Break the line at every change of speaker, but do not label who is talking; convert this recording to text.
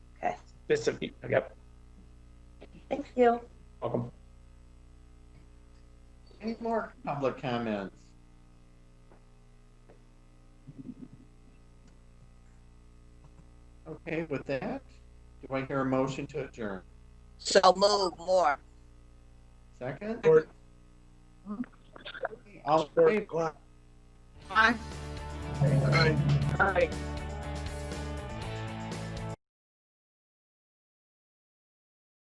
specific, yep,
Thank you.
welcome.
Any more public comments? Okay, with that, do I hear a motion to adjourn?
So move more.
Second?
Or-
All in favor?
Aye. Aye.